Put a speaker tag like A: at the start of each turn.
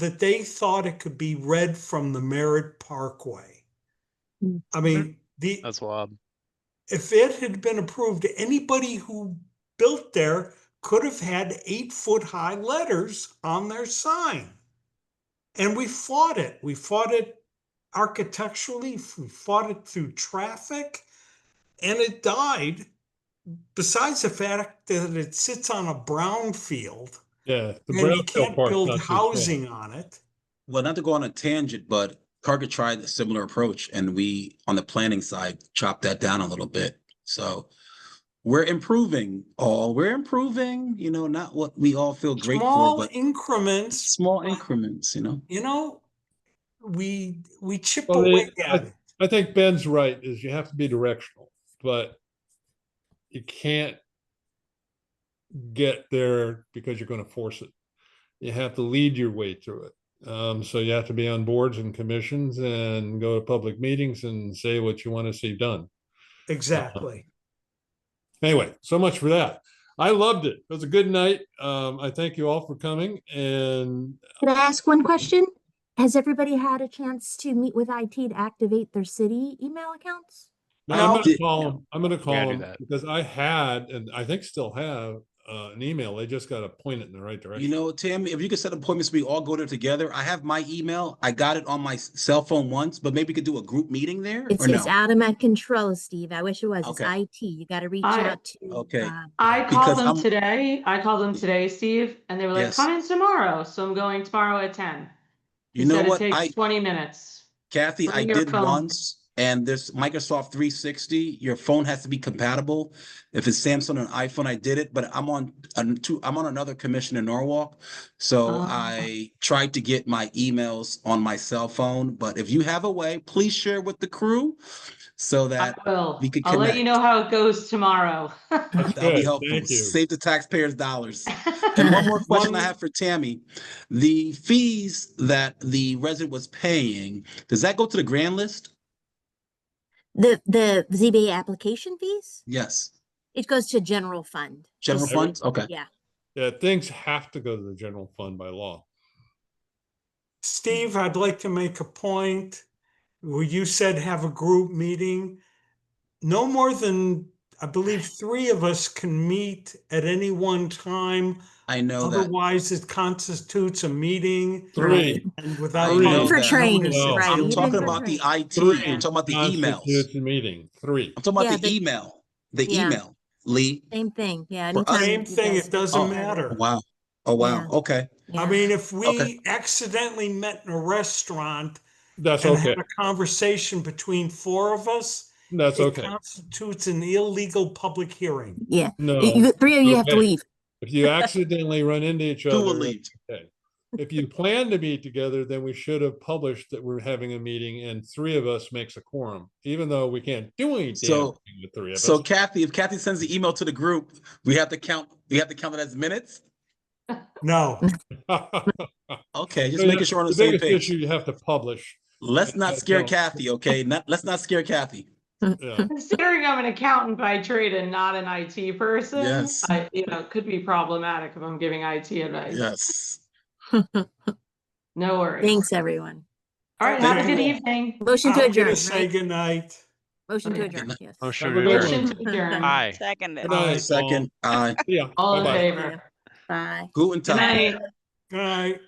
A: that they thought it could be read from the Merritt Parkway.
B: Mm.
A: I
C: Mm-hmm.
A: mean, the,
D: That's wild.
A: if it had been approved, anybody who built there could have had eight foot high letters on their sign. And we fought it. We fought it architecturally, f- we fought it through traffic, and it died. Besides the fact that it sits on a brown field
C: Yeah.
A: and
C: the
A: you
C: brownfield
A: can't
C: part's
A: build
C: not too bad.
A: housing on it.
E: Well, not to go on a tangent, but Carga tried a similar approach and we, on the planning side, chopped that down a little bit. So we're improving all, we're improving, you know, not what we all feel great for,
A: Small
E: but
A: increments
E: small increments, you know?
A: you know, we we chip
C: Well,
A: away
C: it-
A: at it.
C: I think Ben's right, is you have to be directional, but you can't get there because you're gonna force it. You have to lead your way through it. Um, so you have to be on boards and commissions and go to public meetings and say what you want to see done.
A: Exactly.
C: Anyway, so much for that. I loved it. It was a good night. Um, I thank you all for coming and
B: Could I ask one question? Has everybody had a chance to meet with IT to activate their city email accounts?
C: No,
A: No.
C: I'm gonna
E: Did-
C: call him. I'm gonna call
D: gotta do
C: him
D: that.
C: because I had, and I think still have, uh, an email. They just gotta point it in the right
E: You
C: direction.
E: know, Tim, if you could set appointments, we all go there together. I have my email. I got it on my s- cell phone once, but maybe we could do a group meeting there
B: It's,
E: or no?
B: it's out of my control, Steve. I wish it was. It's
E: Okay.
B: IT. You gotta reach
F: I-
B: out to.
E: Okay.
B: uh,
F: I
E: Because
F: called them
E: I'm-
F: today. I called them today, Steve, and they were like,
E: Yes.
F: "Come in tomorrow." So I'm going tomorrow at ten.
E: You
F: He
E: know
F: said
E: what?
F: It takes
E: I,
F: twenty minutes.
E: Kathy,
F: Bring
E: I
F: your
E: did
F: phone.
E: once, and this Microsoft three sixty, your phone has to be compatible. If it's Samsung and iPhone, I did it, but I'm on, an- two- I'm on another commission in Norwalk. So
F: Ah.
E: I tried to get my emails on my cell phone, but if you have a way, please share with the crew so
F: I
E: that
F: will.
E: we could
F: I'll let you know how it goes tomorrow.
E: that'll be
C: Good,
E: helpful.
C: thank you.
E: Save the taxpayers' dollars. And one more question I have for Tammy. The fees that the resident was paying, does that go to the grand list?
B: The, the ZBA application fees,
E: Yes.
B: it goes to general fund.
E: General
B: Just-
E: funds? Okay.
B: Yeah.
C: Yeah, things have to go to the general fund by law.
A: Steve, I'd like to make a point. Where you said have a group meeting. No more than, I believe, three of us can meet at any one time.
E: I
B: Oh,
E: know that.
A: Otherwise, it constitutes a meeting
C: Three.
A: and without.
E: I know
A: public
E: For
A: notice,
B: training,
A: it's
B: right,
E: I'm
B: even
E: talking
B: for
E: about the
B: training.
E: IT,
C: Three
E: I'm talking about the
C: constitutes
E: emails.
C: a Meeting, three.
E: I'm talking
B: Yeah,
E: about the
B: the-
E: email, the
B: Yeah.
E: email, Lee.
B: Same thing. Yeah.
E: For
B: anytime
E: us-
A: Same
B: you
A: thing,
B: guys
A: it
B: get
A: doesn't
B: together.
A: matter.
E: Wow. Oh, wow.
B: Yeah.
E: Okay.
A: I
B: Yeah.
A: mean, if we
E: Okay.
A: accidentally met in a restaurant
C: That's
A: and
C: okay.
A: had a conversation between four of us,
C: That's
A: It
C: okay.
A: constitutes an illegal public hearing.
B: Yeah. You-
C: No,
B: you- Three of you have to
C: Okay.
B: leave.
C: if you accidentally run into each
E: Who will
C: other,
E: leave?
C: if you plan to meet together, then we should have published that we're having a meeting and three of us makes a quorum, even though we can't do any damn
E: So-
C: thing with three of us.
E: So Kathy, if Kathy sends the email to the group, we have to count, we have to count it as minutes?
A: No,
E: Okay, just
C: So
E: making
C: that's
E: sure we're on
C: the
E: the same
C: biggest
E: page.
C: Issue you have to publish.
E: Let's not
C: Yeah,
E: scare
C: no.
E: Kathy, okay? Not, let's not scare Kathy.
C: Yeah.
F: Considering I'm an accountant by trade and not an IT person,
E: Yes.
F: I, you know, it could be problematic if I'm giving IT advice.
E: Yes.
F: No worries.
B: Thanks, everyone.
F: All right. Have a
A: Thank
F: good
A: you.
F: evening.
B: Motion
A: I'm
B: to
A: gonna
B: adjourn,
A: say
B: right?
A: goodnight.
B: Motion to
F: Okay.
B: adjourn, yes.
D: Oh, sure.
C: Have a good
D: sure.
F: Motion to
B: one.
F: adjourn.
D: Hi.
G: Seconded.
C: Good night, all.
E: Second, aye.
C: Yeah.
F: All in
C: Bye-bye.
F: favor.
B: Bye.
E: Guten
F: Good
E: Tag.
F: night.
A: Good night.